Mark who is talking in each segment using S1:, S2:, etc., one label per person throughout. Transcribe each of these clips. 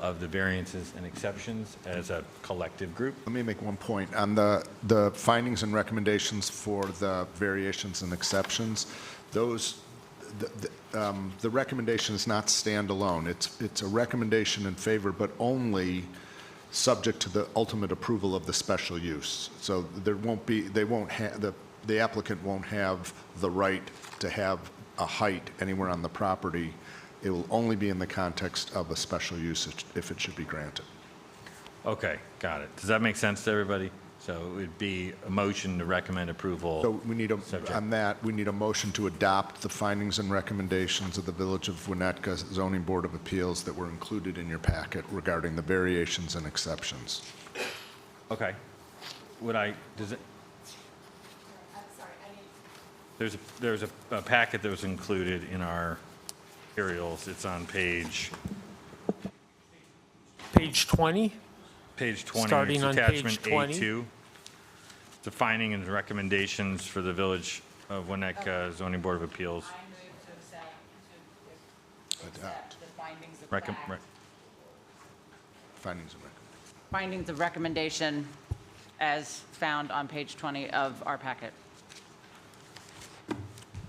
S1: of the variances and exceptions as a collective group.
S2: Let me make one point. On the, the findings and recommendations for the variations and exceptions, those, the, the, um, the recommendation is not standalone. It's, it's a recommendation in favor, but only subject to the ultimate approval of the special use. So there won't be, they won't have, the, the applicant won't have the right to have a height anywhere on the property. It will only be in the context of a special use if it should be granted.
S1: Okay, got it. Does that make sense to everybody? So it would be a motion to recommend approval.
S2: So we need a,
S1: Subject.
S2: on that, we need a motion to adopt the findings and recommendations of the Village of Winnetka Zoning Board of Appeals that were included in your packet regarding the variations and exceptions.
S1: Okay. Would I, does it,
S3: I'm sorry, I didn't
S1: there's, a there's a a packet that was included in our materials. It's on page,
S4: Page 20?
S1: page 20.
S4: Starting
S1: It's
S4: on page
S1: Attachment
S4: 20.
S1: A2. The finding and recommendations for the Village of Winnetka Zoning Board of Appeals.
S3: I move to accept,
S2: Adopt.
S3: to accept the findings of
S1: Recom- re-
S3: fact.
S2: Findings and recommendations.
S3: Findings of recommendation as found on page 20 of our packet.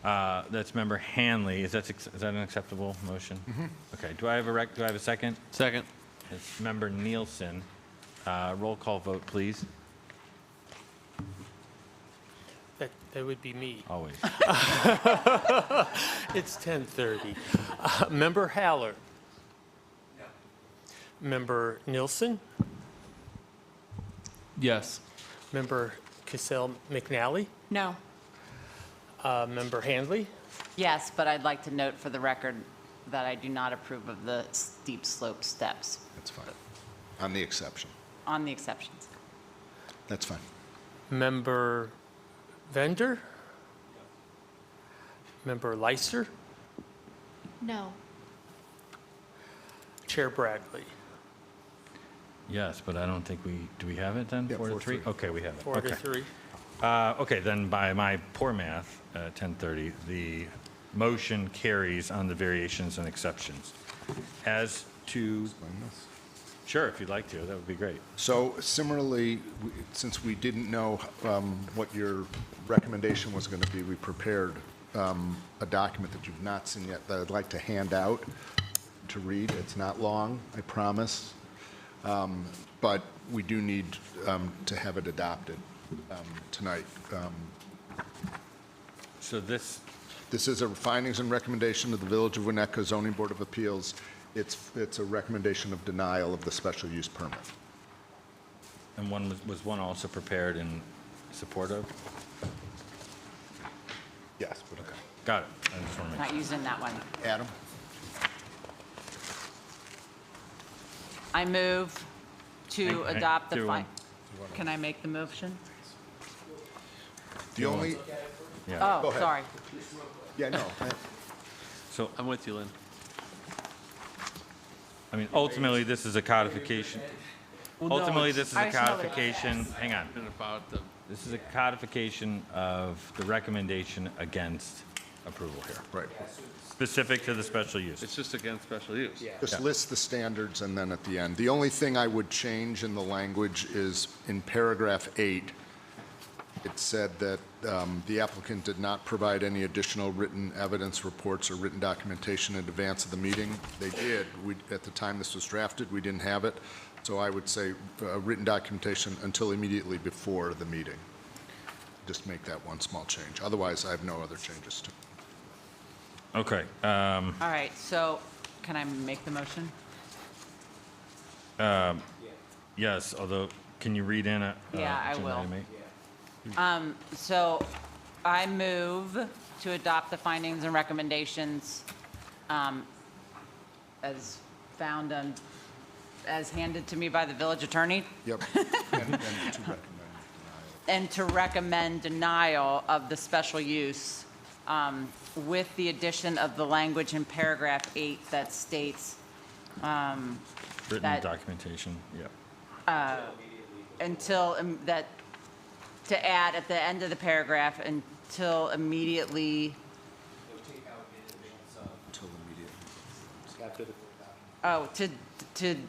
S1: uh, That's member Hanley. Is that, is that an acceptable motion? Okay. Do I have a rec, do I have a second?
S5: Second.
S1: It's member Nielsen. Uh, Roll call vote, please.
S4: That, that would be me.
S1: Always.
S4: It's 10:30. Uh, Member Haller? Member Nilsson?
S5: Yes.
S4: Member Cassell McNally?
S3: No.
S4: Uh, Member Handley?
S3: Yes, but I'd like to note for the record that I do not approve of the steep slope steps
S2: That's fine. On the exception.
S3: on the exceptions.
S2: That's fine.
S4: Member Vender? Member Leister?
S6: No.
S4: Chair Bradley?
S1: Yes, but I don't think we, do we have it then?
S2: Yeah,
S1: Four to
S2: four to
S1: three?
S2: three.
S1: Okay, we have it.
S4: Four to
S1: Okay.
S4: three.
S1: Uh, Okay, then by my poor math, uh, 10:30, the motion carries on the variations and exceptions. As to, sure, if you'd like to, that would be great.
S2: So similarly, we- since we didn't know um, what your recommendation was going to be, we prepared um, a document that you've not seen yet that I'd like to hand out to read. It's not long, I promise, Um, but we do need um, to have it adopted um, tonight. Um,
S1: So this,
S2: This is a findings and recommendation of the Village of Winnetka Zoning Board of Appeals. It's It's a recommendation of denial of the special use permit.
S1: and one, was- was one also prepared in support of?
S2: Yes. but-
S1: Got it. I just want to make
S3: Not using that one.
S2: Adam?
S3: I move to
S1: Hang- hang-
S3: adopt the
S1: do
S3: fi,
S1: one.
S3: can I make the motion?
S2: The only,
S1: Yeah.
S3: Oh,
S2: ahead.
S3: sorry.
S2: yeah, no,
S1: So,
S5: I'm with you, Lynn.
S1: I mean, ultimately, this is a codification. Ultimately, this is
S3: I
S1: a
S3: just know that-
S1: codification, hang on.
S5: And about the
S1: This is a codification of the recommendation against approval here,
S2: right.
S1: specific to the special use.
S5: It's just against special use. Yeah.
S2: Just list the standards and then at the end. The only thing I would change in the language is in paragraph eight, it said that um, the applicant did not provide any additional written evidence, reports, or written documentation in advance of the meeting. They did. We, at the time this was drafted, we didn't have it. So I would say uh, written documentation until immediately before the meeting. Just make that one small change. Otherwise, I have no other changes to.
S1: Okay, uh,
S3: All right, so can I make the motion?
S1: yes, although, can you read in a? uh,
S3: Yeah, I
S1: agenda
S3: will.
S1: item eight?
S3: So I move to adopt the findings and recommendations um, as found and as handed to me by the village attorney
S2: Yep. And- and to recommend.
S3: and to recommend denial of the special use um, with the addition of the language in paragraph eight that states
S1: Written
S3: That-
S1: documentation, yeah.
S3: until, um, that, to add at the end of the paragraph, until immediately. Until immediately. Oh, to, to